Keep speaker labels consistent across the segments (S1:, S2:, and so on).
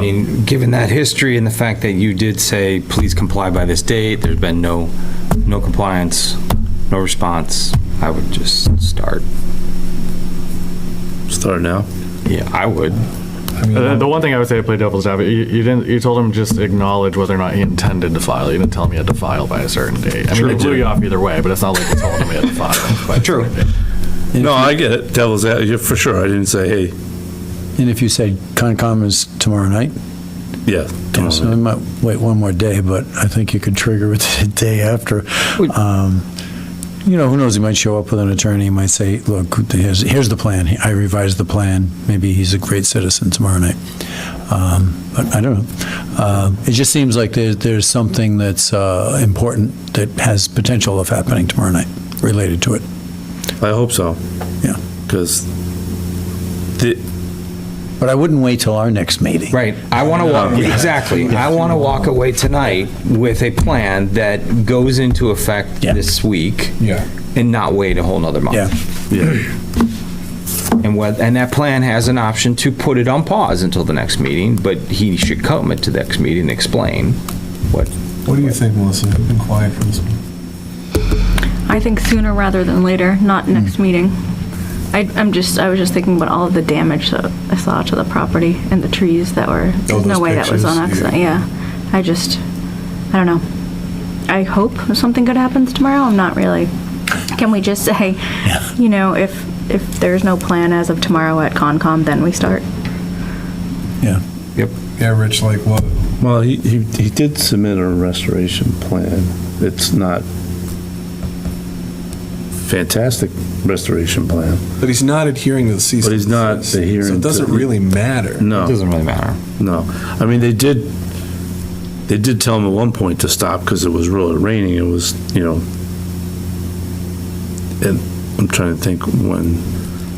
S1: I mean, given that history and the fact that you did say, please comply by this date, there's been no, no compliance, no response, I would just start.
S2: Start now.
S1: Yeah, I would.
S3: Uh, The, the one thing I would say to play devil's advocate, you, you didn't, you told him just acknowledge whether or not he intended to file. You didn't tell him he had to file by a certain date. I mean, they blew you off either way, but it's not like you told him he had to file. by a
S1: True.
S3: certain date.
S2: No, I get it. Devil's ad, yeah, for sure. I didn't say, hey,
S4: And if you say Concom is tomorrow night,
S2: yeah.
S4: you know,
S2: tomorrow
S4: so we
S2: night.
S4: might wait one more day, but I think you could trigger it the day after.
S1: Would-
S4: Um, You know, who knows, he might show up with an attorney, he might say, look, here's, here's the plan, I revised the plan, maybe he's a great citizen tomorrow night. Um, But I don't know. Um, It just seems like there's, there's something that's uh, important that has potential of happening tomorrow night, related to it.
S2: I hope so.
S4: Yeah.
S2: Because the,
S4: But I wouldn't wait till our next meeting.
S1: Right. I want to walk, exactly. I want to walk away tonight with a plan that goes into effect
S4: Yeah.
S1: this week.
S4: Yeah.
S1: And not wait a whole nother month.
S4: Yeah,
S1: And what, and that plan has an option to put it on pause until the next meeting, but he should come at the next meeting and explain what,
S5: What do you think, Melissa? You've been quiet for this one.
S6: I think sooner rather than later, not next meeting. I, I'm just, I was just thinking about all of the damage that I saw to the property and the trees that were, there's
S5: those
S6: no way that was on
S5: pictures,
S6: accident, yeah. I just, I don't know. I hope something good happens tomorrow, I'm not really, can we just say, you know, if, if there's no plan as of tomorrow at Concom, then we start?
S4: yeah.
S5: Yeah, Rich, like what?
S2: well, he, he, he did submit a restoration plan. It's not fantastic restoration plan.
S5: But he's not adhering to the cease.
S2: But he's
S5: and
S2: not
S5: desist.
S2: adhering
S5: So it doesn't
S2: to-
S5: really matter.
S1: it
S2: No,
S1: doesn't really matter.
S2: no. I mean, they did, they did tell him at one point to stop because it was really raining. It was, you know, and I'm trying to think when,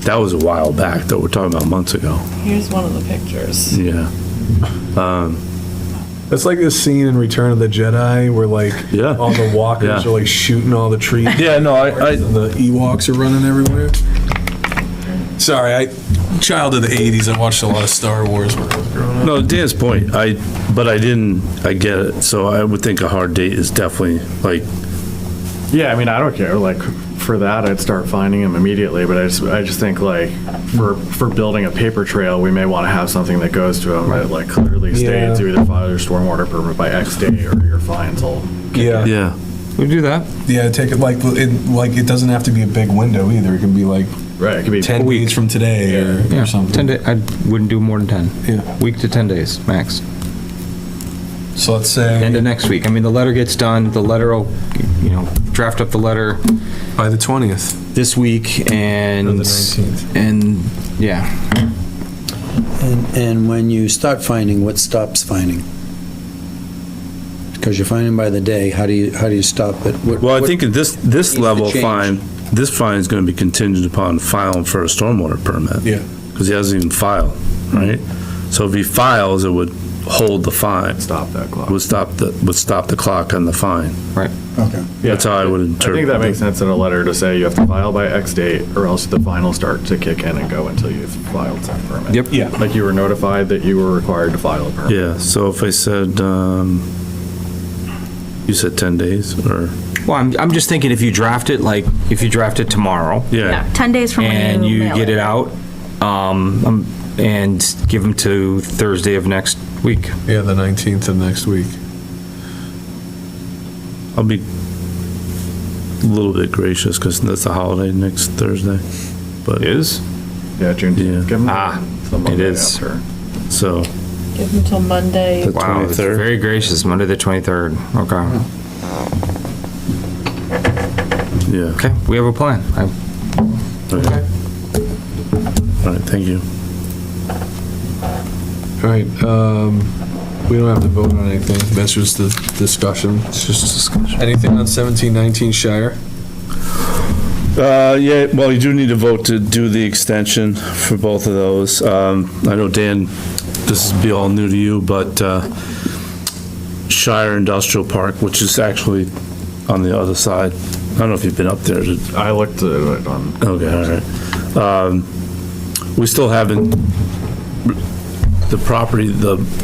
S2: that was a while back though. We're talking about months ago.
S7: Here's one of the pictures.
S2: Yeah. Um,
S5: That's like this scene in Return of the Jedi where like
S2: Yeah.
S5: all the walkers
S2: Yeah.
S5: are like shooting all the trees.
S2: yeah, no, I, I,
S5: and the Ewoks are running everywhere. Sorry, I child of the '80s. I watched a lot of Star Wars when I was growing up.
S2: no, Dan's point, I, but I didn't, I get it. So I would think a hard date is definitely like,
S3: Yeah, I mean, I don't care. Like for that, I'd start finding him immediately. But I just, I just think like for for building a paper trail, we may want to have something that goes to him that like clearly states
S5: Yeah.
S3: you either file your stormwater permit by X day or your fines will.
S5: Yeah, yeah.
S2: yeah,
S1: We do that.
S5: take it like it, like it doesn't have to be a big window either. It can be like
S3: Right, it could be
S5: ten weeks from today or,
S1: Yeah,
S5: or something.
S1: 10 day, I wouldn't do more than 10.
S5: Yeah.
S1: Week to 10 days, max.
S5: So let's say
S1: End of next week. I mean, the letter gets done, the letter will, you know, draft up the letter
S5: by the twentieth,
S1: this week and.
S5: Or the 19th.
S1: And, yeah,
S4: And, and when you start finding, what stops finding? Because you're finding by the day, how do you, how do you stop it? What-
S2: well, I
S4: what-
S2: think at this, this
S4: Needs to
S2: level
S4: change.
S2: fine, this fine is gonna be contingent upon filing for a stormwater permit.
S5: Yeah.
S2: Cause he hasn't even filed, right? So if he files, it would hold the fine,
S3: stop that clock.
S2: would stop the, would stop the clock on the fine.
S4: Okay.
S3: Yeah.
S2: That's how I would
S3: I
S2: interpret
S3: think that
S2: it.
S3: makes sense in a letter to say you have to file by X date or else the fine will start to kick in and go until you've filed some permit.
S1: Yep.
S5: Yeah.
S3: Like you were notified that you were required to file a permit.
S2: Yeah, so if I said, um, you said 10 days or,
S1: well, I'm, I'm just thinking if you draft it, like, if you draft it tomorrow,
S2: yeah.
S6: 10 days from when
S1: and
S6: you
S1: you
S6: mail
S1: get it out, um, um, and give them to Thursday of next week.
S5: yeah, the nineteenth of next week.
S2: I'll be a little bit gracious because that's a holiday next Thursday. But
S1: Is?
S3: Yeah, June.
S2: Yeah.
S3: Give them
S1: Ah,
S3: the
S1: it
S3: Monday
S1: is.
S3: after.
S2: so
S7: Give them till Monday.
S2: the
S1: Wow, that's
S2: 23rd.
S1: very gracious, Monday the 23rd. Okay,
S2: Yeah.
S1: okay, we have a plan. I-
S2: Okay. All right. Thank you.
S5: All right, um, we don't have to vote on anything. That's just the discussion. It's just discussion. Anything on seventeen nineteen Shire?
S2: Uh, yeah. Well, you do need to vote to do the extension for both of those. Um, I know Dan, this will be all new to you, but uh, Shire Industrial Park, which is actually on the other side. I don't know if you've been up there. to-
S3: I looked at it on.
S2: Okay, all right. Um, We still haven't, the property, the